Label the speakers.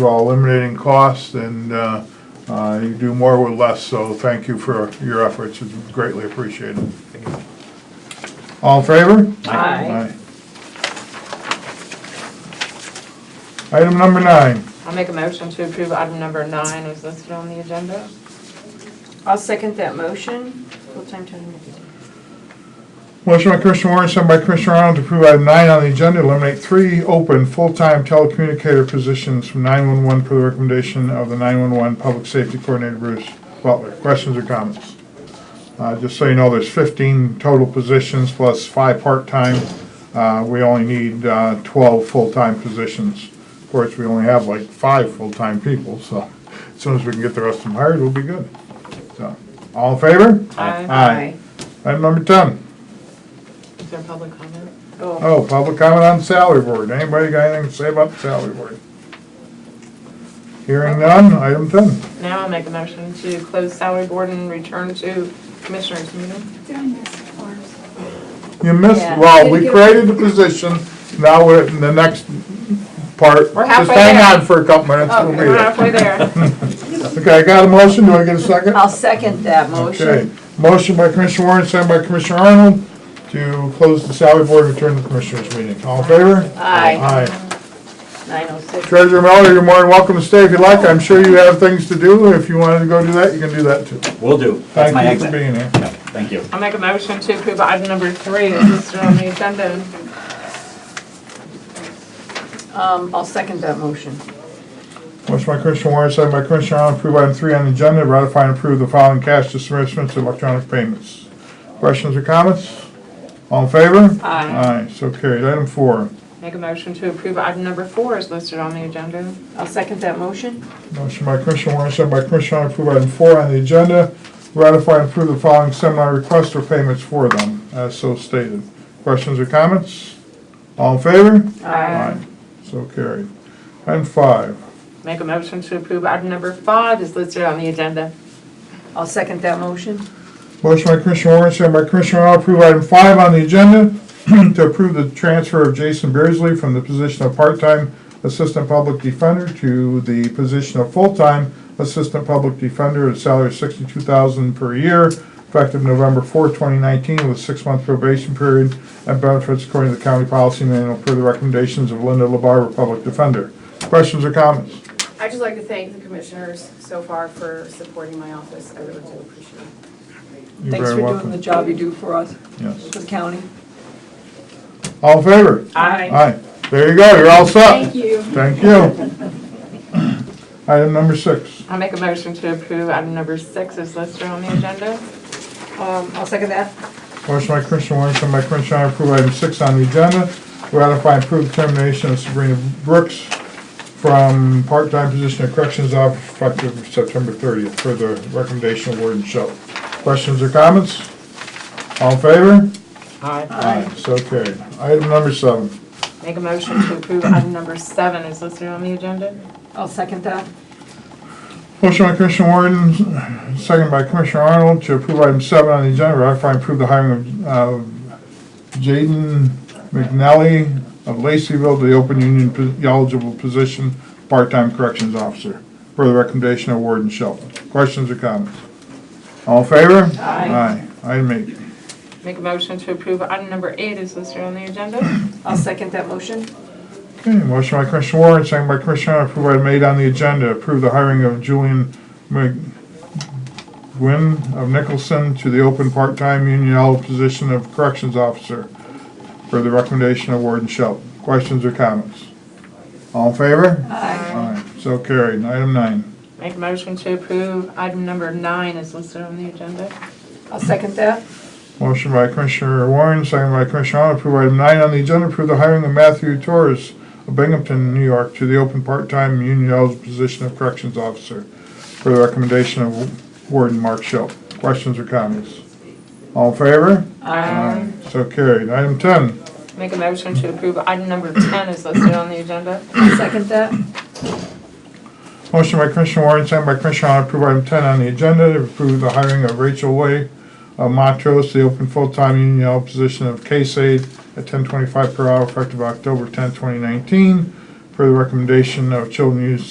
Speaker 1: While eliminating costs and uh, uh, you do more with less, so thank you for your efforts, it's greatly appreciated. All in favor?
Speaker 2: Aye.
Speaker 1: Aye. Item number nine,
Speaker 2: I'll make a motion to approve item number nine as listed on the agenda.
Speaker 3: I'll second that motion. Full-time town manager.
Speaker 1: motion by Commissioner Warren, sent by Commissioner Arnold to approve item nine on the agenda, eliminate three open full-time telecommunicator positions from 911 per the recommendation of the 911 Public Safety Coordinator Bruce Butler. Questions or comments? Uh, Just so you know, there's 15 total positions plus five part-time. Uh, We only need uh, 12 full-time positions. Of course, we only have like five full-time people, so as soon as we can get the rest of them hired, we'll be good. So, all in favor?
Speaker 2: Aye.
Speaker 1: Aye. Item number 10.
Speaker 2: Is there public comment?
Speaker 3: Oh,
Speaker 1: Oh, public comment on salary board. Anybody got anything to say about the salary board? Hearing none, item 10.
Speaker 2: Now I'll make a motion to close salary board and return to commissioners meeting.
Speaker 4: Did I miss ours?
Speaker 1: You missed,
Speaker 3: Yeah.
Speaker 1: well, we created the position, now we're in the next part.
Speaker 2: We're
Speaker 1: Just
Speaker 2: halfway
Speaker 1: hang
Speaker 2: there. Oh,
Speaker 1: on for a couple minutes,
Speaker 3: Oh,
Speaker 1: we'll
Speaker 2: We're
Speaker 1: be
Speaker 2: halfway there.
Speaker 1: there. Okay, I got a motion, do I get a second?
Speaker 3: I'll second that
Speaker 1: Okay,
Speaker 3: motion.
Speaker 1: motion by Commissioner Warren, second by Commissioner Arnold, to close the salary board and return to the commissioners meeting. All in favor?
Speaker 3: Aye,
Speaker 1: Aye.
Speaker 3: 906.
Speaker 1: Treasurer Miller, you're more than welcome to stay if you'd like. I'm sure you have things to do. If you wanted to go do that, you can do that too.
Speaker 5: Will do. That's my
Speaker 1: Thank you for
Speaker 5: exit.
Speaker 1: being here.
Speaker 5: Yeah, Thank you.
Speaker 2: I'll make a motion to approve item number three as listed on the agenda.
Speaker 3: Um, I'll second that motion.
Speaker 1: Motion by Commissioner Warren, second by Commissioner Arnold, approve item three on the agenda, ratify and approve the following cash disbursements and electronic payments. Questions or comments? All in favor?
Speaker 2: Aye.
Speaker 1: Aye, so carried. Item four,
Speaker 2: Make a motion to approve item number four as listed on the agenda.
Speaker 3: I'll second that motion.
Speaker 1: motion by Commissioner Warren, second by Commissioner Arnold, approve item four on the agenda, ratify and approve the following seminar requests or payments for them, as so stated. Questions or comments? All in favor? Aye, so carried. Item five,
Speaker 2: Make a motion to approve item number five as listed on the agenda.
Speaker 3: I'll second that motion.
Speaker 1: Motion by Commissioner Warren, second by Commissioner Arnold, approve item five on the agenda, to approve the transfer of Jason Beersley from the position of part-time Assistant Public Defender to the position of full-time Assistant Public Defender at a salary of sixty-two thousand per year, effective November fourth, twenty nineteen, with a six-month probation period and benefits according to the county policy manual per the recommendations of Linda LaBarber, Public Defender. Questions or comments?
Speaker 4: I'd just like to thank the commissioners so far for supporting my office. I really do appreciate it.
Speaker 1: You're
Speaker 3: Thanks
Speaker 1: very
Speaker 3: for doing
Speaker 1: welcome.
Speaker 3: the job you do for us,
Speaker 1: Yes.
Speaker 3: for the county.
Speaker 1: All in favor?
Speaker 2: Aye.
Speaker 1: Aye. There you go, you're all set.
Speaker 4: Thank you.
Speaker 1: Thank you. Item number six.
Speaker 2: I'll make a motion to approve item number six as listed on the agenda.
Speaker 3: Um, I'll second that.
Speaker 1: Motion by Commissioner Warren, second by Commissioner Arnold, approve item six on the agenda. Ratify and approve the termination of Sabrina Brooks from part-time position of corrections officer effective September 30th for the recommendation of Warden Schultz. Questions or comments? All in favor?
Speaker 2: Aye.
Speaker 1: Aye. So carried. Item number seven.
Speaker 2: Make a motion to approve item number seven as listed on the agenda.
Speaker 3: I'll second that.
Speaker 1: Motion by Commissioner Warden, second by Commissioner Arnold, to approve item seven on the agenda, ratify and approve the hiring of uh, Jaden McNally of Laceyville to the open union po- eligible position, part-time corrections officer, per the recommendation of Warden Shelton. Questions or comments? All in favor? Aye. Aye. Item eight.
Speaker 2: Make a motion to approve item number eight is listed on the agenda.
Speaker 3: I'll second that motion.
Speaker 1: Okay, motion by Commissioner Warren, second by Commissioner Arnold, approve item eight on the agenda, approve the hiring of Julian McGuinn of Nicholson to the open part-time union eligible position of corrections officer for the recommendation of Warden Shelton. Questions or comments? All in favor? Aye. So carried. Item nine.
Speaker 2: Make a motion to approve item number nine is listed on the agenda.
Speaker 3: I'll second that.
Speaker 1: Motion by Commissioner Warren, second by Commissioner Arnold, approve item nine on the agenda, approve the hiring of Matthew Torres of Binghamton, New York, to the open part-time union eligible position of corrections officer for the recommendation of Warden Mark Schill. Questions or comments? All in favor? Aye. So carried. Item ten.
Speaker 2: Make a motion to approve item number 10 is listed on the agenda.
Speaker 3: I'll second that.
Speaker 1: Motion by Commissioner Warren, second by Commissioner Arnold, approve item ten on the agenda, to approve the hiring of Rachel Way of Montrose, the open full-time union eligible position of case aide at ten twenty-five per hour effective October tenth, twenty nineteen, per the recommendation of Children Youth